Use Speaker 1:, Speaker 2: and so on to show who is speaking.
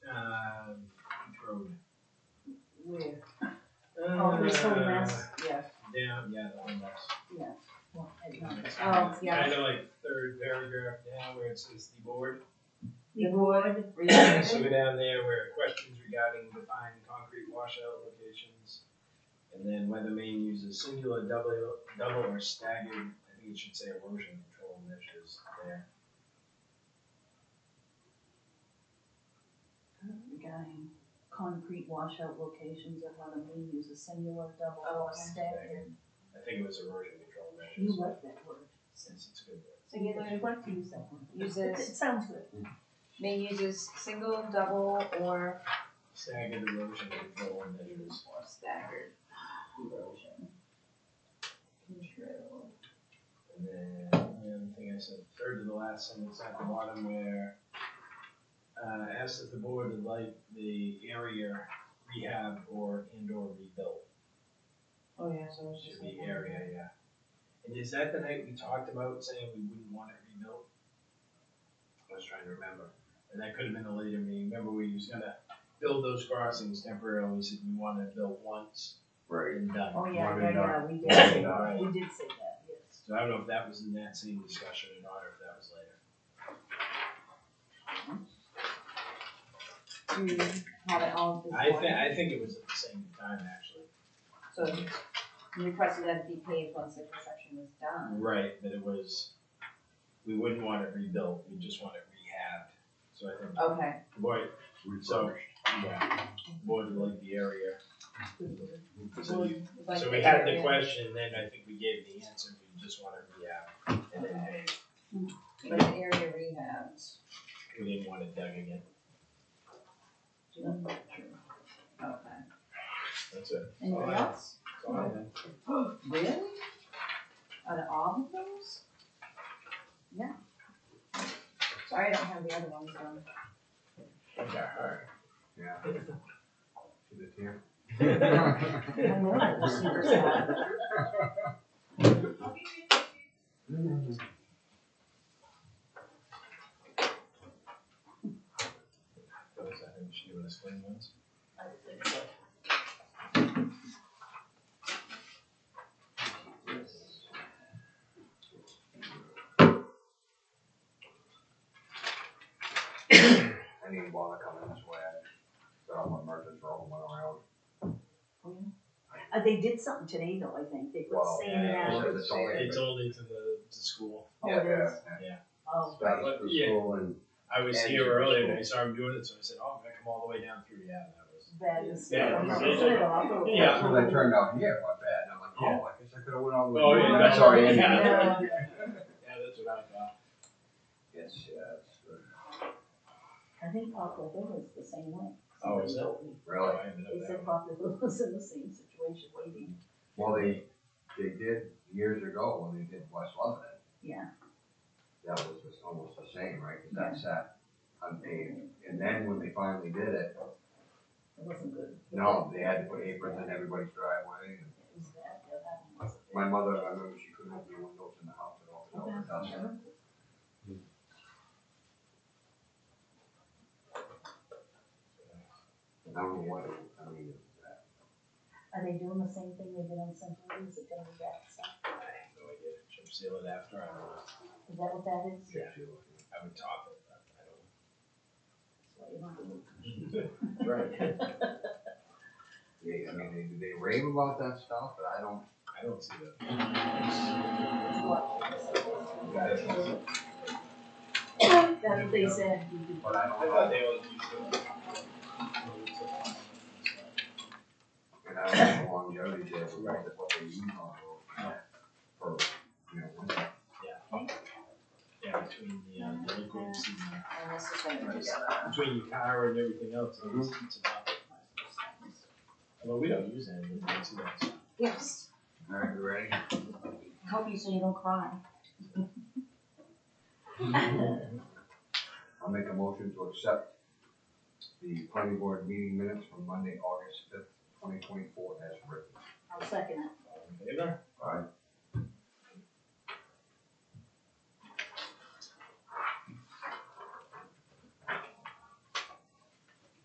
Speaker 1: Uh,
Speaker 2: this whole mess, yeah,
Speaker 1: uh, Down, yeah, the whole mess.
Speaker 2: yeah. Well, I don't know.
Speaker 1: It's
Speaker 2: Oh,
Speaker 1: kinda-
Speaker 2: yeah,
Speaker 1: Kinda like third paragraph down where it says the board.
Speaker 2: the board,
Speaker 1: So
Speaker 2: reviewed
Speaker 1: we're down there where questions regarding defined concrete washout locations. And then whether Maine uses singular, double, double or staggered, I think it should say erosion control measures there.
Speaker 2: regarding concrete washout locations of how the main uses singular, double,
Speaker 3: Oh,
Speaker 2: or
Speaker 3: okay.
Speaker 2: staggered.
Speaker 1: I think it was erosion control measures.
Speaker 2: You like that word.
Speaker 1: Since it's a good word.
Speaker 3: So you
Speaker 2: I'd like to use that one.
Speaker 3: Uses-
Speaker 2: It sounds good.
Speaker 3: may uses single, double, or
Speaker 1: Staggered erosion control measures.
Speaker 3: or staggered erosion. Control.
Speaker 1: And then, the other thing I said, third to the last sentence at the bottom where, uh, asked if the board would like the area rehab or indoor rebuilt.
Speaker 2: Oh, yeah, so it's
Speaker 1: Should be area, yeah. And is that the night we talked about saying we wouldn't want it rebuilt? I was trying to remember, and that could have been a later meeting, remember we was gonna build those crossings temporarily, said we wanted to build once
Speaker 4: Right.
Speaker 1: and done.
Speaker 2: Oh, yeah,
Speaker 4: Modern
Speaker 2: yeah, yeah,
Speaker 4: art.
Speaker 2: we did say that,
Speaker 1: Modern
Speaker 2: we did say that, yes.
Speaker 1: So I don't know if that was in that same discussion or not, or if that was later.
Speaker 2: You have it all
Speaker 1: I
Speaker 2: before.
Speaker 1: thi- I think it was at the same time, actually.
Speaker 3: So you requested that it be paved once the construction was done.
Speaker 1: Right, but it was, we wouldn't want it rebuilt, we just want it rehabbed, so I think.
Speaker 3: Okay,
Speaker 1: Boy, so,
Speaker 4: Refurbished.
Speaker 1: yeah, boy, to like the area, so you,
Speaker 3: It's like
Speaker 1: so we had the
Speaker 3: area.
Speaker 1: question, then I think we gave the answer, we just want it rehabbed. And then, hey,
Speaker 3: But the area rehabs.
Speaker 1: we didn't want it dug again,
Speaker 3: Okay.
Speaker 1: that's it.
Speaker 3: Anything
Speaker 1: Alright.
Speaker 3: else?
Speaker 1: That's all I had.
Speaker 3: Really? Out of all of those? Yeah. Sorry, I don't have the other ones done.
Speaker 1: Okay, alright.
Speaker 4: Yeah. To the tail.
Speaker 3: I know I was super sad.
Speaker 1: Those, I think, should do us clean ones.
Speaker 4: I didn't even bother coming this way. I got on my merchant roll and went around.
Speaker 2: Uh, they did something today though, I think, they put
Speaker 4: Well,
Speaker 2: sand
Speaker 1: yeah,
Speaker 2: out.
Speaker 4: it's just all-
Speaker 1: It's only to the, to school.
Speaker 2: Oh, it is?
Speaker 1: Yeah.
Speaker 2: Oh,
Speaker 4: Back to
Speaker 1: Yeah.
Speaker 4: school and
Speaker 1: I was
Speaker 4: And
Speaker 1: here
Speaker 4: you're
Speaker 1: earlier
Speaker 4: cool.
Speaker 1: and I saw him doing it, so I said, "Oh, I'm gonna come all the way down through." Yeah, that was.
Speaker 2: that is.
Speaker 1: Yeah,
Speaker 2: I'm
Speaker 4: it's-
Speaker 2: not sure though, I'll go.
Speaker 1: Yeah.
Speaker 4: That's when I turned out here, my bad, and I'm like, oh, I guess I could have went all the way.
Speaker 1: Oh,
Speaker 2: yeah.
Speaker 4: That's already in
Speaker 1: Yeah.
Speaker 4: there.
Speaker 2: Yeah.
Speaker 1: Yeah, that's what I thought.
Speaker 4: Yes, yes,
Speaker 2: I think Poplar Hill is the same way.
Speaker 1: Oh, is
Speaker 2: Somebody
Speaker 1: it?
Speaker 2: told me.
Speaker 4: really.
Speaker 1: I ended up
Speaker 2: They
Speaker 1: that
Speaker 2: said Poplar Hill was in the same situation, waiting,
Speaker 4: Well, they, they did years ago when they did West Lebanon,
Speaker 2: yeah.
Speaker 4: that was just almost the same, right? 'Cause that sat unpaved. And then when they finally did it,
Speaker 2: It wasn't good.
Speaker 4: no, they had to put aprons in everybody's driveway. and
Speaker 2: It was that, yeah, that one wasn't
Speaker 4: My mother, I remember she couldn't open the windows in the house at all, all the dust.
Speaker 2: good.
Speaker 1: uh,
Speaker 4: And I don't know what, it- I mean, it was that.
Speaker 2: Are they doing the same thing they did on Central Lee? Is it gonna be that stuff?
Speaker 1: I had no idea. Chip seal it after I left.
Speaker 2: Is that what that is?
Speaker 1: Yeah. I would top it, but I don't.
Speaker 2: So you don't have to-
Speaker 1: Right.
Speaker 4: Yeah, I mean, they, they rave about that stuff, but I don't,
Speaker 1: I don't see that.
Speaker 2: That's what they said. you could-
Speaker 4: but I
Speaker 1: I
Speaker 4: don't
Speaker 1: thought
Speaker 4: know.
Speaker 1: they always used to.
Speaker 4: And I don't know the longevity there, with what they- what they use on those. For, you know, when they-
Speaker 1: Yeah, between the, uh, the liquids and the.
Speaker 3: And this is gonna be together.
Speaker 1: between your car and everything else, it's, it's about. Although we don't use any of it, so that's-
Speaker 3: Yes.
Speaker 4: all right, you ready?
Speaker 3: Help you so you don't cry.
Speaker 4: I'll make a motion to accept the planning board meeting minutes from Monday, August fifth, twenty twenty-four as written.
Speaker 2: I'll second it.
Speaker 1: all in favor?
Speaker 4: All right,